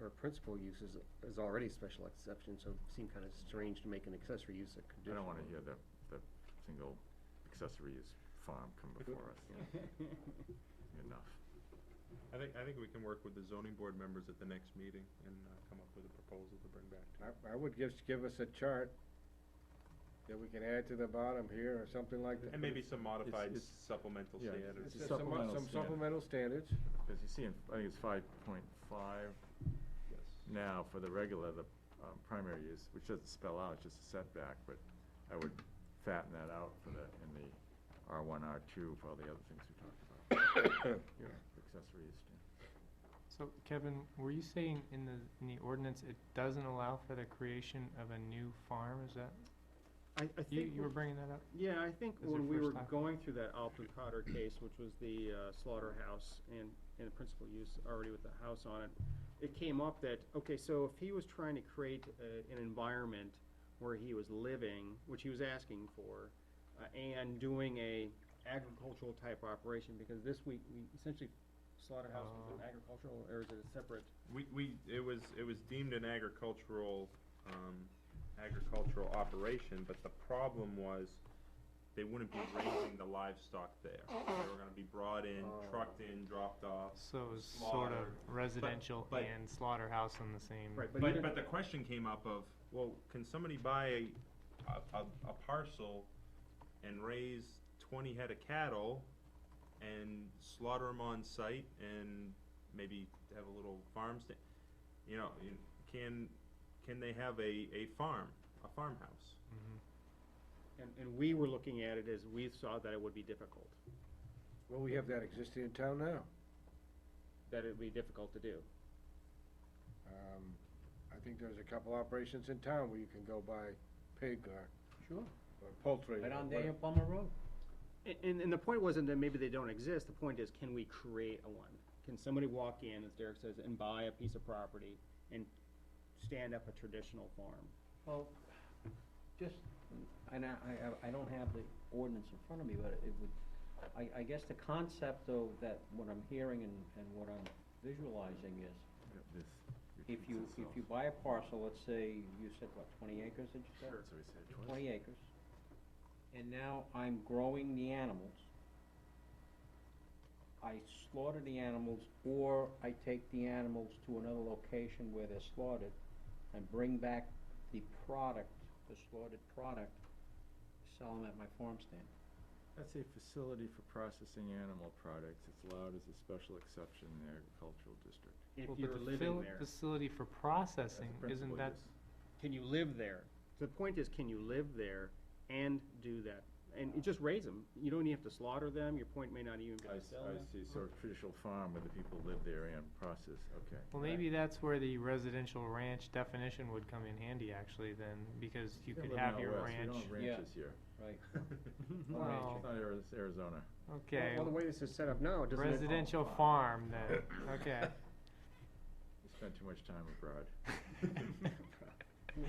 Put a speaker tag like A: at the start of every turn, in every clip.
A: her principal use is, is already a special exception, so it seemed kind of strange to make an accessory use a
B: I
A: condition.
B: don't wanna hear that, that single accessory use farm come before us, enough.
C: I think, I think we can work with the zoning board members at the next meeting and uh, come up with a proposal to bring back to.
D: I, I would just give us a chart that we can add to the bottom here or something like that.
C: And maybe some modified
B: it's-
C: supplemental
B: yeah,
C: standards.
D: It's
B: a
D: just some, mo-
B: supplemental
D: some
B: standard.
D: supplemental standards.
B: As you see, in I think it's five point five
C: Yes.
B: now for the regular, the, um, primary use, which doesn't spell out, it's just a setback, but I would fatten that out for the, in the R one, R two, for all the other things we talked about. Yeah, Accessory use, yeah.
E: So Kevin, were you saying in the, in the ordinance, it doesn't allow for the creation of a new farm, is that,
F: I, I
E: you,
F: think,
E: you were bringing that up?
F: yeah, I think
E: This is your
F: when we were
E: first time?
F: going through that Alton Cotter case, which was the uh, slaughterhouse and, and the principal use already with the house on it, it came up that, okay, so if he was trying to create a, an environment where he was living, which he was asking for, uh, and doing a agricultural type operation, because this week, we essentially slaughterhouse was an agricultural, or is it a separate?
C: We, we, it was, it was deemed an agricultural, um, agricultural operation, but the problem was they wouldn't be raising the livestock there. They were gonna be brought in, trucked in, dropped off.
E: So it was sort of
C: Slaughter,
E: residential
C: but-
E: and slaughterhouse on the same.
F: you
C: But,
F: don't-
C: but the question came up of, well, can somebody buy a, a, a- a parcel and raise twenty head of cattle and slaughter them on site and maybe have a little farm stand? You know, you- can, can they have a, a farm, a farmhouse?
E: Mhm.
F: And, and we were looking at it as we saw that it would be difficult,
D: Well, we have that existing in town now.
F: that it would be difficult to do.
D: Um, I think there's a couple operations in town where you can go buy pig or.
G: Sure.
D: Or poultry.
G: Right
D: or
G: on
D: what-
G: Daniel Plummer Road.
F: A- And, and the point wasn't that maybe they don't exist, the point is, can we create a one? Can somebody walk in, as Derek says, and buy a piece of property and stand up a traditional farm?
G: Well, just, and I, I, I don't have the ordinance in front of me, but it would, I, I guess the concept though, that what I'm hearing and, and what I'm visualizing is,
B: Yeah, This
G: if
B: repeats
G: you, if
B: itself.
G: you buy a parcel, let's say, you said what, twenty acres, did you say?
B: So we said twice.
G: Twenty acres, and now I'm growing the animals. I slaughter the animals, or I take the animals to another location where they're slaughtered, and bring back the product, the slaughtered product, sell them at my farm stand.
B: That's a facility for processing animal products. It's allowed as a special exception in the agricultural district.
F: If
E: Well, but
F: you're
E: the
F: living
E: fil-
F: there,
E: Facility for
B: That's the
E: processing,
B: principal
E: isn't that,
B: use.
F: can you live there? The point is, can you live there and do that? And you just raise them, you don't even have to slaughter them, your point may not even be
B: I,
F: to
B: s-
F: sell
B: I
F: them.
B: see, so traditional farm where the people live there and process, okay.
E: well, maybe that's where the residential ranch definition would come in handy actually then, because
B: We
E: you could
B: live in
E: have
B: out
E: your
B: west. We
E: ranch.
B: don't have
G: Yeah.
B: ranches here.
G: Right.
B: Not ranches.
E: Well-
B: Not Ari- Arizona.
E: Okay,
A: Well, the way this is set up now, it doesn't.
E: residential farm then, okay.
B: We spent too much time abroad.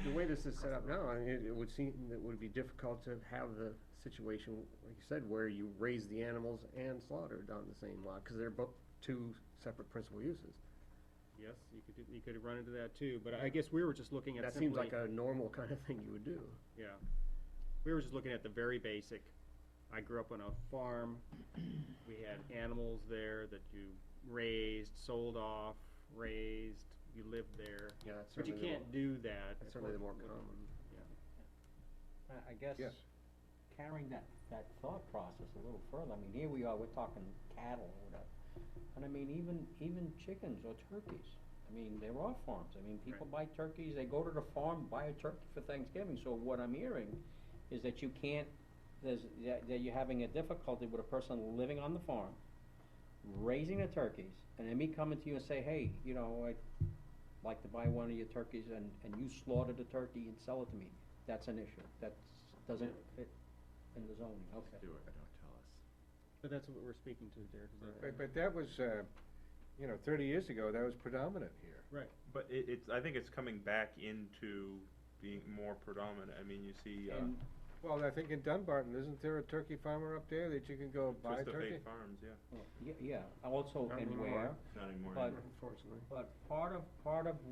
A: The way this is set up now, I mean, it it would seem, it would be difficult to have the situation, like you said, where you raise the animals and slaughter it on the same lot, because they're both two separate principal uses.
F: Yes, you could, do- you could run into that too, but I guess we were just looking at
A: That
F: simply.
A: seems like a normal kind of thing you would do.
F: Yeah. We were just looking at the very basic. I grew up on a farm. We had animals there that you raised, sold off, raised, you lived there.
A: Yeah, that's
F: But you
A: certainly the
F: can't
A: more-
F: do that.
A: That's certainly the more
F: with-
A: common.
F: yeah.
G: I, I guess,
D: Yes.
G: carrying that, that thought process a little further, I mean, here we are, we're talking cattle or whatever. And I mean, even, even chickens or turkeys, I mean, there are farms, I mean, people buy turkeys, they go to the farm, buy a turkey for Thanksgiving, so what I'm hearing is that you can't, there's, that, that you're having a difficulty with a person living on the farm, raising the turkeys, and then me coming to you and say, hey, you know, I'd like to buy one of your turkeys, and, and you slaughter the turkey and sell it to me, that's an issue, that's, doesn't fit in the zoning, okay.
B: Do it, don't tell us.
F: But that's what we're speaking to, Derek. is that
D: But, but that was, uh, you know, thirty years ago, that was predominant here.
F: Right.
C: But it, it's, I think it's coming back into being more predominant. I mean, you see, uh,
G: And
D: Well, I think in Dunbarton, isn't there a turkey farmer up there that you can go buy
C: Twist of
D: turkey?
C: Fate Farms, yeah,
G: Well, Yeah, yeah, also,
A: Not
G: and
A: anymore.
G: where,
C: not anymore.
G: But-
A: Unfortunately.
G: but part of, part of